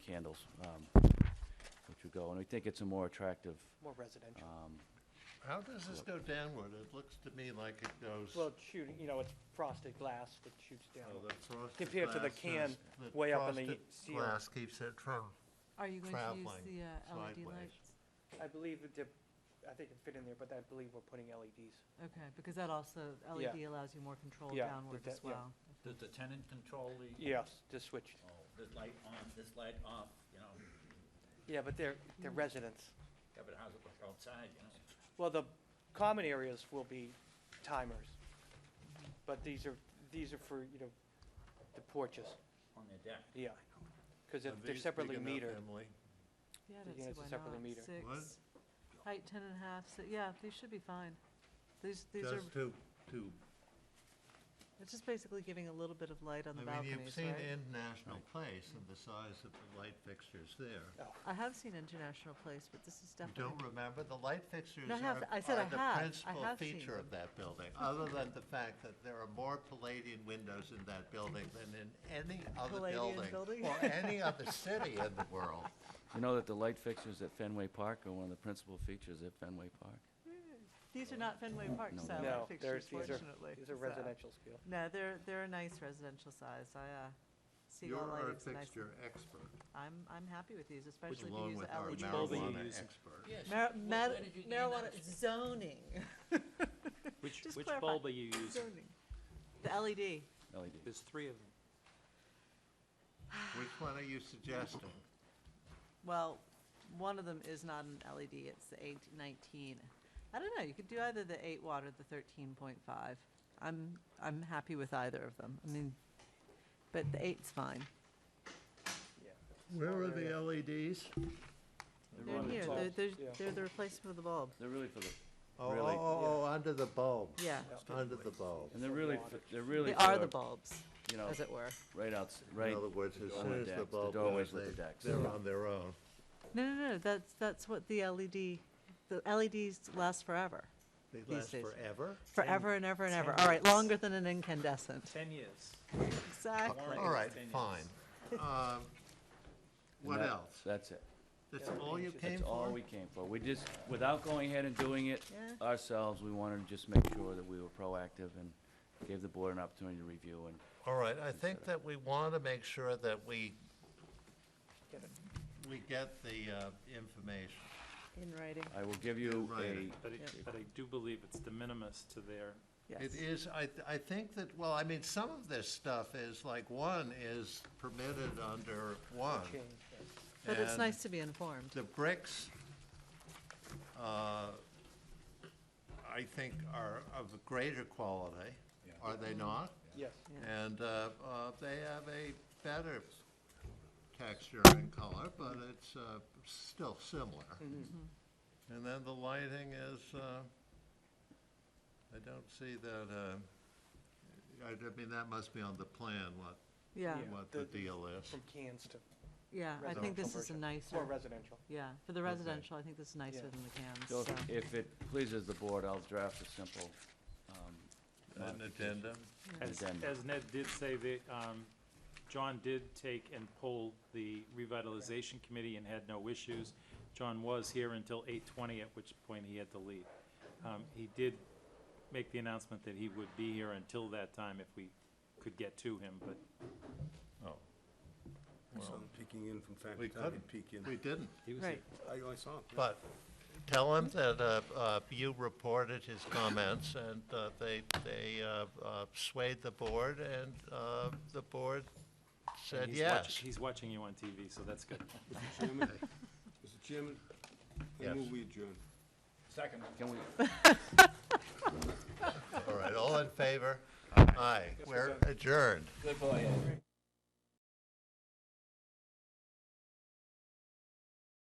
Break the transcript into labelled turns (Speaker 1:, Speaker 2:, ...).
Speaker 1: candles, um, which would go, and we think it's a more attractive,
Speaker 2: More residential.
Speaker 3: Uh,
Speaker 1: um,
Speaker 3: How does this go downward? It looks to me like it goes,
Speaker 2: Well,
Speaker 3: oh,
Speaker 2: it's shooting, you know, it's frosted glass that shoots down.
Speaker 3: the frosted
Speaker 2: Compared to the
Speaker 3: glass
Speaker 2: can
Speaker 3: is- the
Speaker 2: way up in the
Speaker 3: frosted
Speaker 2: ceiling.
Speaker 3: Glass keeps it from,
Speaker 4: Are you going to use
Speaker 3: Traveling
Speaker 4: the uh, LED
Speaker 3: sideways.
Speaker 4: lights?
Speaker 2: I believe that, they're- I think it fit in there, but I believe we're putting E LEDs.
Speaker 4: Okay, because that also, LED allows you more control
Speaker 2: Yeah,
Speaker 4: downward
Speaker 2: that-
Speaker 4: as
Speaker 2: yeah.
Speaker 4: well.
Speaker 5: Does the tenant control the?
Speaker 2: Yes, to switch.
Speaker 5: Oh, this light on, this light off, you know,
Speaker 2: Yeah, but they're, they're residents.
Speaker 5: yeah, but how's it look outside, you know?
Speaker 2: Well, the common areas will be timers. But these are, these are for, you know, the porches,
Speaker 5: On the deck,
Speaker 2: yeah. Because
Speaker 3: are
Speaker 2: they're
Speaker 3: these big
Speaker 2: separately
Speaker 3: enough,
Speaker 2: metered.
Speaker 3: Emily?
Speaker 4: Yeah, I
Speaker 2: The
Speaker 4: don't see
Speaker 2: units are
Speaker 4: why
Speaker 2: separately
Speaker 4: not.
Speaker 2: metered.
Speaker 3: What?
Speaker 4: Six, height ten and a half, si- yeah, these should be fine. These, these are,
Speaker 3: Just to, to,
Speaker 4: it's just basically giving a little bit of light on the
Speaker 3: I mean,
Speaker 4: balconies,
Speaker 3: you've seen
Speaker 4: right?
Speaker 3: International Place and the size of the light fixtures there.
Speaker 4: I have seen International Place, but this is
Speaker 3: You don't
Speaker 4: definitely,
Speaker 3: remember? The light fixtures
Speaker 4: No, I have-
Speaker 3: are
Speaker 4: I said
Speaker 3: are
Speaker 4: I have. I
Speaker 3: the principal
Speaker 4: have seen
Speaker 3: feature of that building, other than the fact that there are more Palladian windows in that building than in any other
Speaker 4: Palladian
Speaker 3: building
Speaker 4: building?
Speaker 3: or any other city in the world.
Speaker 1: you know that the light fixtures at Fenway Park are one of the principal features at Fenway Park?
Speaker 4: these are not Fenway Park
Speaker 1: No,
Speaker 4: style
Speaker 2: No,
Speaker 4: light
Speaker 2: there's,
Speaker 4: fixtures,
Speaker 2: these are,
Speaker 4: fortunately.
Speaker 2: these are
Speaker 4: so-
Speaker 2: residential scale.
Speaker 4: No, they're, they're a nice residential size. I, uh, see E all
Speaker 3: You're our
Speaker 4: lighting's nice.
Speaker 3: fixture expert,
Speaker 4: I'm, I'm happy with these, especially if you
Speaker 3: along
Speaker 4: use E
Speaker 3: with
Speaker 4: the
Speaker 3: our
Speaker 4: LED.
Speaker 2: bulb are you
Speaker 3: marijuana
Speaker 2: using?
Speaker 3: expert.
Speaker 5: Yes.
Speaker 4: Mar-
Speaker 5: Wh-
Speaker 4: mar-
Speaker 5: where did you gain that
Speaker 4: marijuana
Speaker 5: experience?
Speaker 4: zoning.
Speaker 6: Which,
Speaker 4: Just
Speaker 6: which
Speaker 4: clarify.
Speaker 6: bulb are you using?
Speaker 4: Zoning. The E LED.
Speaker 1: LED.
Speaker 6: There's three of them.
Speaker 3: Which one are you suggesting?
Speaker 4: Well, one of them is not an LED, it's the eight nineteen. I don't know, you could do either the eight watt or the thirteen point five. I'm, I'm happy with either of them. I mean, but the eight's fine.
Speaker 3: Where are the E LEDs?
Speaker 4: They're in
Speaker 2: the
Speaker 4: here, they're,
Speaker 2: bulbs,
Speaker 4: they're,
Speaker 2: yeah.
Speaker 4: they're the replacement of the bulb.
Speaker 1: They're really for the,
Speaker 3: Oh,
Speaker 1: Really?
Speaker 3: oh, oh, under the bulb,
Speaker 4: Yeah,
Speaker 3: under the bulb.
Speaker 1: and they're really, for- they're really
Speaker 4: they are the
Speaker 1: for,
Speaker 4: bulbs,
Speaker 1: you know,
Speaker 4: as it were.
Speaker 1: right outs,
Speaker 3: In
Speaker 1: right,
Speaker 3: other words, as
Speaker 1: on
Speaker 3: soon
Speaker 1: the
Speaker 3: as the
Speaker 1: decks, the
Speaker 3: bulb
Speaker 1: doorways
Speaker 3: goes,
Speaker 1: with
Speaker 3: they-
Speaker 1: the decks.
Speaker 3: they're on their own.
Speaker 4: No, no, no, that's, that's what the LED, the LEDs last forever.
Speaker 3: They
Speaker 4: These
Speaker 3: last
Speaker 4: days.
Speaker 3: forever?
Speaker 4: Forever and ever and ever.
Speaker 6: ten
Speaker 4: All right,
Speaker 6: years.
Speaker 4: longer than an incandescent.
Speaker 6: Ten years.
Speaker 4: Exactly.
Speaker 3: All right,
Speaker 6: Ten
Speaker 3: fine. Um,
Speaker 1: and
Speaker 3: What
Speaker 1: that-
Speaker 3: else?
Speaker 1: That's it.
Speaker 3: That's all you came
Speaker 1: That's all
Speaker 3: for?
Speaker 1: we came for. We just, without going ahead and doing it
Speaker 4: Yeah.
Speaker 1: ourselves, we wanted to just make sure that we were proactive and gave the board an opportunity to review and
Speaker 3: All right, I think that we want to make sure that we,
Speaker 2: Get it.
Speaker 3: we get the uh, information.
Speaker 4: In writing,
Speaker 1: I will give you a,
Speaker 3: Right.
Speaker 6: But I,
Speaker 4: Yep.
Speaker 6: but I do believe it's de minimis to their,
Speaker 4: yes.
Speaker 3: It is, I, th- I think that, well, I mean, some of this stuff is, like, one is permitted under one.
Speaker 2: Change, yeah.
Speaker 4: But it's
Speaker 3: and-
Speaker 4: nice to be informed.
Speaker 3: The bricks, uh, I think, are of greater quality, are they not?
Speaker 2: Yes,
Speaker 3: And uh, uh, they have a better texture and color, but it's uh, still similar.
Speaker 2: Mm-hmm.
Speaker 3: And then the lighting is, uh, I don't see that, uh, I I mean, that must be on the plan, what,
Speaker 4: Yeah,
Speaker 2: Yeah.
Speaker 3: what the
Speaker 2: the-
Speaker 3: deal is.
Speaker 2: from cans to
Speaker 4: yeah, I think
Speaker 2: Residential
Speaker 4: this is a
Speaker 2: version.
Speaker 4: nicer,
Speaker 2: more residential.
Speaker 4: yeah, for the residential, I think this is nicer
Speaker 2: Yeah.
Speaker 4: than the
Speaker 1: so
Speaker 4: cans, so.
Speaker 1: if- if it pleases the board, I'll draft a simple, um,
Speaker 3: An addendum?
Speaker 6: as,
Speaker 1: Addendum.
Speaker 6: as Ned did say, they, um, John did take and pull the revitalization committee and had no issues. John was here until eight twenty, at which point he had to leave. Um, he did make the announcement that he would be here until that time if we could get to him, but
Speaker 3: Oh,
Speaker 7: Saw him peeking in from time
Speaker 3: We
Speaker 7: to time.
Speaker 3: couldn't.
Speaker 7: He'd peek in.
Speaker 3: we didn't.
Speaker 6: he was here.
Speaker 4: Right,
Speaker 7: I I saw him. yeah.
Speaker 3: But tell him that uh, uh, you reported his comments, and uh, they, they uh, uh, swayed the board, and uh, the board
Speaker 6: And
Speaker 3: said
Speaker 6: he's watch-
Speaker 3: yes.
Speaker 6: He's watching you on TV, so that's good.
Speaker 7: Mr. Chairman, Mr. Chairman, I
Speaker 3: Yes.
Speaker 7: move we adjourn.
Speaker 5: Second.
Speaker 1: can we,
Speaker 3: All right, all in favor? Aye, we're adjourned.
Speaker 5: Good boy, Ed.